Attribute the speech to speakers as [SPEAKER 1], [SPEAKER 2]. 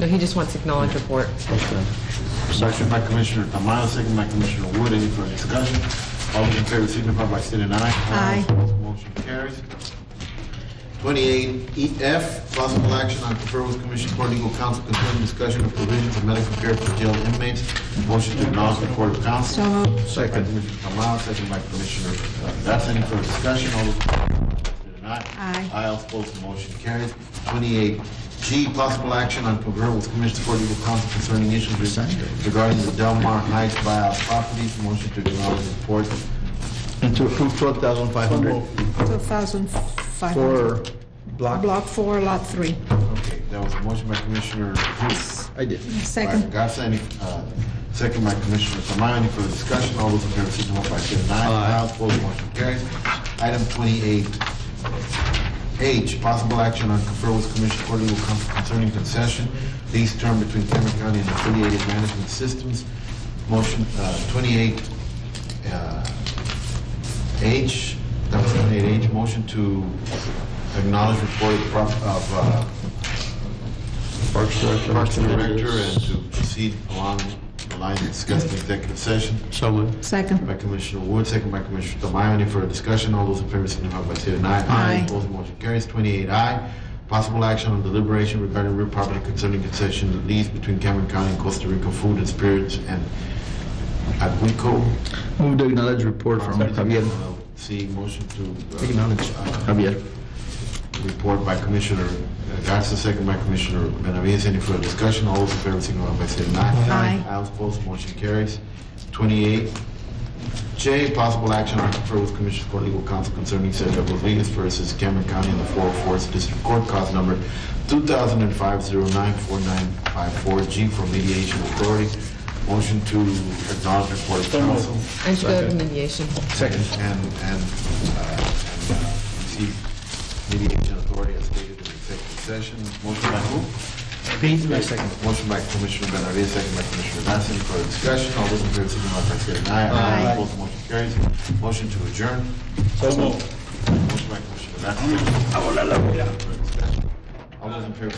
[SPEAKER 1] No, he just wants acknowledged report.
[SPEAKER 2] Motion by Commissioner Tamayo, second by Commissioner Wood. Any further discussion? All those in favor signify by stating aye.
[SPEAKER 3] Aye.
[SPEAKER 2] Motion carries. Twenty-eight EF, possible action on referral with Commission Court Legal Counsel concerning discussion of provisions of medical care for jail inmates. Motion to acknowledge the report of counsel.
[SPEAKER 3] So moved.
[SPEAKER 2] Second. By Commissioner Tamayo, second by Commissioner uh, That's Any further discussion? All those in favor signify by stating aye.
[SPEAKER 3] Aye.
[SPEAKER 2] Aye, all opposed, the motion carries. Twenty-eight G, possible action on confer with Commissioner Court Legal Counsel concerning issues regarding the Delmar Heights buyout properties. Motion to acknowledge the report.
[SPEAKER 4] And to approve 12,500
[SPEAKER 3] 2,500.
[SPEAKER 4] for block.
[SPEAKER 3] Block 4, Lot 3.
[SPEAKER 2] Okay, that was a motion by Commissioner Hughes.
[SPEAKER 4] I did.
[SPEAKER 2] By
[SPEAKER 3] Second.
[SPEAKER 2] Garza, any, uh, second by Commissioner Tamayo, any further discussion? All those in favor, signify by saying aye. Aye, all opposed, the motion carries. Item twenty-eight H, possible action on confer with Commissioner Court Legal Counsel concerning concession lease term between Cameron County and affiliated management systems. Motion, uh, twenty-eight, uh, H, that was twenty-eight H, motion to acknowledge report of, prop- of, uh,
[SPEAKER 4] Parks Director.
[SPEAKER 2] Parks and Director and to proceed along the lines discussed in executive session
[SPEAKER 4] So moved.
[SPEAKER 3] Second.
[SPEAKER 2] by Commissioner Wood, second by Commissioner Tamayo. Any further discussion? All those in favor signify by saying aye.
[SPEAKER 3] Aye.
[SPEAKER 2] Opposed, motion carries. Twenty-eight aye. Possible action on deliberation regarding real property concerning concession lease between Cameron County and Costa Rica Food and Spirits and Aguico.
[SPEAKER 4] Move to acknowledge report from Javier.
[SPEAKER 2] See, motion to. uh,
[SPEAKER 4] Acknowledge. Javier.
[SPEAKER 2] Report by Commissioner uh, Garza, second by Commissioner Benavides. Any further discussion? All those in favor signify by saying aye.
[SPEAKER 3] Aye.
[SPEAKER 2] All opposed, motion carries. Twenty-eight J, possible action on confer with Commissioner Court Legal Counsel concerning Sergio Rodriguez versus Cameron County in the 404th District Court, cause number 2005-094954G for mediation authority. Motion to acknowledge report of counsel.
[SPEAKER 1] And should go to mediation.
[SPEAKER 2] Second. And, and, uh, and, uh, receive mediation authority as stated in executive session. Motion by who?
[SPEAKER 4] Pete, my second.
[SPEAKER 2] Motion by Commissioner Benavides, second by Commissioner Nasa. Any further discussion? All those in favor, signify by saying aye.
[SPEAKER 3] Aye.
[SPEAKER 2] Opposed, motion carries. Motion to adjourn. Motion by Commissioner Nasa. All those in favor,